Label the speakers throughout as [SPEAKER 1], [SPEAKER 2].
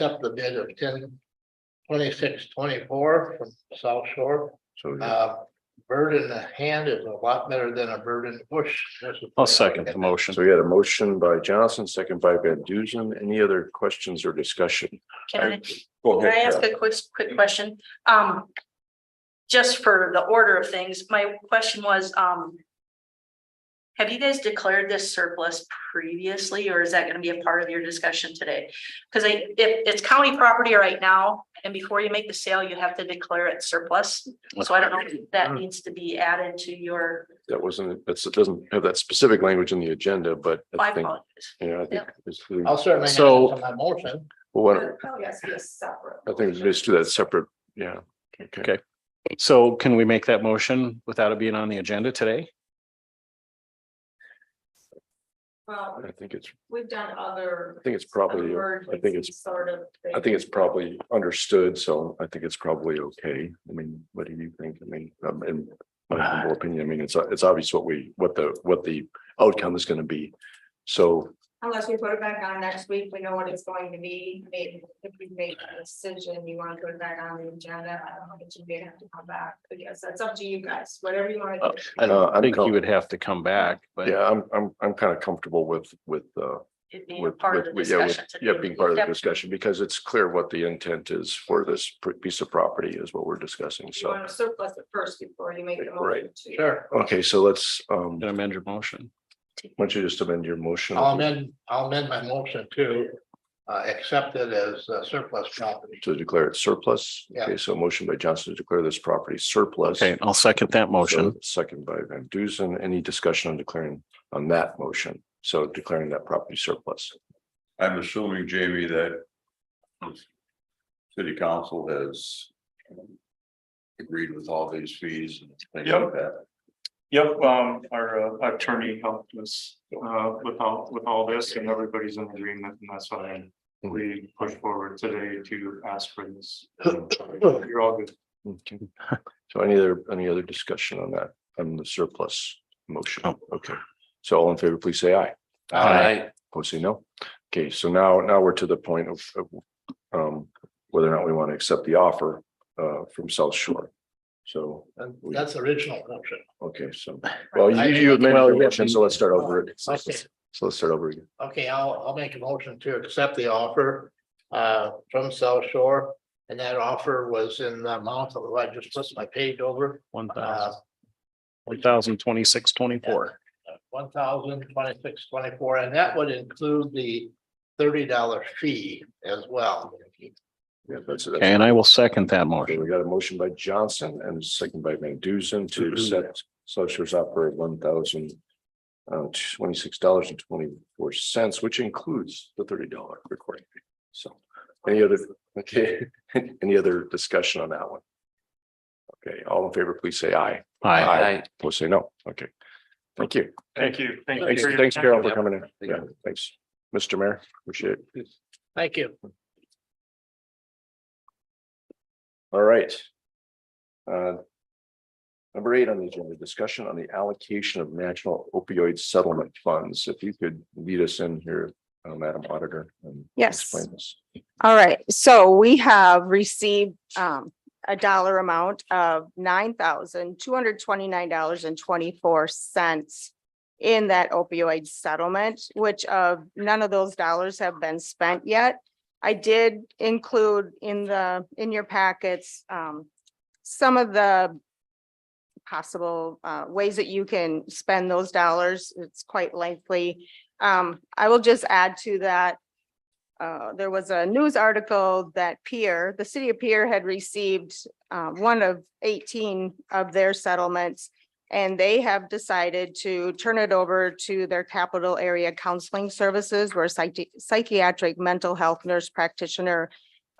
[SPEAKER 1] accept the bid of ten twenty-six twenty-four from South Shore.
[SPEAKER 2] So
[SPEAKER 1] Uh, bird in the hand is a lot better than a bird in the bush. That's the
[SPEAKER 3] I'll
[SPEAKER 1] thing.
[SPEAKER 3] second the motion.
[SPEAKER 2] so we had a motion by Johnson, second by Van Duzen. Any other questions or discussion?
[SPEAKER 4] Can I,
[SPEAKER 2] Go
[SPEAKER 4] can I
[SPEAKER 2] ahead.
[SPEAKER 4] ask
[SPEAKER 2] Kathy.
[SPEAKER 4] a quick, quick question? Um. Just for the order of things, my question was, um. Have you guys declared this surplus previously, or is that gonna be a part of your discussion today? Cause I, if it's county property right now, and before you make the sale, you have to declare it surplus. So I don't know if that needs to be added to your,
[SPEAKER 2] That wasn't, that's, it doesn't have that specific language in the agenda, but
[SPEAKER 4] I
[SPEAKER 2] I think,
[SPEAKER 4] apologize.
[SPEAKER 2] you know, I think. it's-
[SPEAKER 1] I'll certainly add
[SPEAKER 3] So-
[SPEAKER 1] it to my motion.
[SPEAKER 2] Well, why don't-
[SPEAKER 5] Probably has to be a separate.
[SPEAKER 2] I think let's do that separate, yeah.
[SPEAKER 3] Okay. So can we make that motion without it being on the agenda today?
[SPEAKER 5] Well,
[SPEAKER 2] I think it's,
[SPEAKER 5] Um, we've done other.
[SPEAKER 2] I think it's probably, I think it's,
[SPEAKER 5] Sort of.
[SPEAKER 2] I think it's probably understood, so I think it's probably okay. I mean, what do you think? I mean, um, in my humble opinion, I mean, it's, it's obvious what we, what the, what the outcome is gonna be. So
[SPEAKER 5] Unless we put it back on next week, we know what it's going to be, maybe if we make a decision, you want to put it back on the agenda, I don't know, but you may have to come back, I guess, that's up to you guys, whatever you want. to do.
[SPEAKER 3] I
[SPEAKER 2] Uh,
[SPEAKER 3] don't
[SPEAKER 2] I'm
[SPEAKER 3] think
[SPEAKER 2] com-
[SPEAKER 3] you would have to come back, but
[SPEAKER 2] Yeah, I'm, I'm, I'm kind of comfortable with, with, uh,
[SPEAKER 4] It being a
[SPEAKER 2] with,
[SPEAKER 4] part of the
[SPEAKER 2] with- yeah, with-
[SPEAKER 4] discussion.
[SPEAKER 2] yeah,
[SPEAKER 4] today.
[SPEAKER 2] being part of the
[SPEAKER 4] Yep.
[SPEAKER 2] discussion, because it's clear what the intent is for this pr- piece of property is what we're discussing,
[SPEAKER 5] You
[SPEAKER 2] so.
[SPEAKER 5] want to surplus it first before you make the motion.
[SPEAKER 2] Right.
[SPEAKER 5] to-
[SPEAKER 1] Sure.
[SPEAKER 2] Okay, so let's, um,
[SPEAKER 3] Can I
[SPEAKER 2] why
[SPEAKER 3] amend your motion.
[SPEAKER 2] don't you just amend your motion?
[SPEAKER 1] I'll amend, I'll amend my motion to uh, accept it as uh, surplus property.
[SPEAKER 2] To declare it surplus.
[SPEAKER 1] Yeah.
[SPEAKER 2] Okay, so a motion by Johnson to declare this property surplus.
[SPEAKER 3] Okay, I'll second that motion.
[SPEAKER 2] So, Second by Van Dusen. Any discussion on declaring, on that motion? So declaring that property surplus.
[SPEAKER 6] I'm assuming, Jamie, that city council has agreed with all these fees and things like
[SPEAKER 7] Yep.
[SPEAKER 6] that.
[SPEAKER 7] Yep, um, our uh, attorney helped us, uh, with all, with all this and everybody's in agreement and that's why we pushed forward today to ask for this. You're all good.
[SPEAKER 2] Okay. So any other, any other discussion on that, on the surplus motion? Okay, so all in favor, please say aye.
[SPEAKER 3] Oh. Aye.
[SPEAKER 2] Opposed, say no. Okay, so now, now we're to the point of, of, um, whether or not we want to accept the offer, uh, from South Shore. So,
[SPEAKER 1] And that's the original motion.
[SPEAKER 2] okay, so, well, you, you amended your motion, so let's start over. again. So
[SPEAKER 1] Okay.
[SPEAKER 2] let's start over again.
[SPEAKER 1] Okay, I'll, I'll make a motion to accept the offer uh, from South Shore. And that offer was in the amount of, I just listed my page over,
[SPEAKER 3] One
[SPEAKER 1] uh,
[SPEAKER 3] thousand, one thousand twenty-six, twenty-four.
[SPEAKER 1] one thousand twenty-six, twenty-four, and that would include the thirty dollar fee as well.
[SPEAKER 2] Yeah, that's it.
[SPEAKER 3] And I will second that
[SPEAKER 2] Okay,
[SPEAKER 3] motion.
[SPEAKER 2] we got a motion by Johnson and a second by Van Dusen to accept South Shore's opera at one thousand uh, twenty-six dollars and twenty-four cents, which includes the thirty dollar recording fee. So any other, okay, any other discussion on that one? Okay, all in favor, please say aye.
[SPEAKER 3] Aye.
[SPEAKER 2] Opposed, say no. Okay. Thank you.
[SPEAKER 7] Thank you. Thank you
[SPEAKER 2] Thanks,
[SPEAKER 7] for your
[SPEAKER 2] thanks,
[SPEAKER 7] time.
[SPEAKER 2] Carol, for coming in. Yeah, thanks. Mr. Mayor, appreciate it.
[SPEAKER 1] Thank you.
[SPEAKER 2] All right. Uh, Number eight on the agenda, discussion on the allocation of national opioid settlement funds. If you could lead us in here, uh, Madam Auditor. and
[SPEAKER 8] Yes.
[SPEAKER 2] Explain this.
[SPEAKER 8] All right, so we have received um a dollar amount of nine thousand two hundred twenty-nine dollars and twenty-four cents in that opioid settlement, which of none of those dollars have been spent yet. I did include in the, in your packets, um, some of the possible uh ways that you can spend those dollars. It's quite lengthy. Um, I will just add to that uh, there was a news article that Pier, the city of Pier had received uh, one of eighteen of their settlements. And they have decided to turn it over to their capital area counseling services where psychi- psychiatric mental health nurse practitioner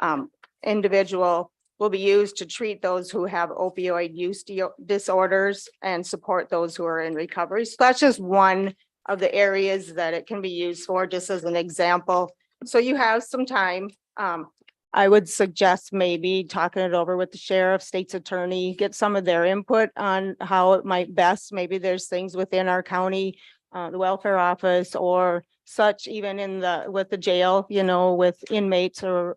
[SPEAKER 8] um, individual will be used to treat those who have opioid use dio- disorders and support those who are in recovery. So that's just one of the areas that it can be used for, just as an example. So you have some time. Um, I would suggest maybe talking it over with the sheriff, state's attorney, get some of their input on how it might best. Maybe there's things within our county, uh, the welfare office or such, even in the, with the jail, you know, with inmates or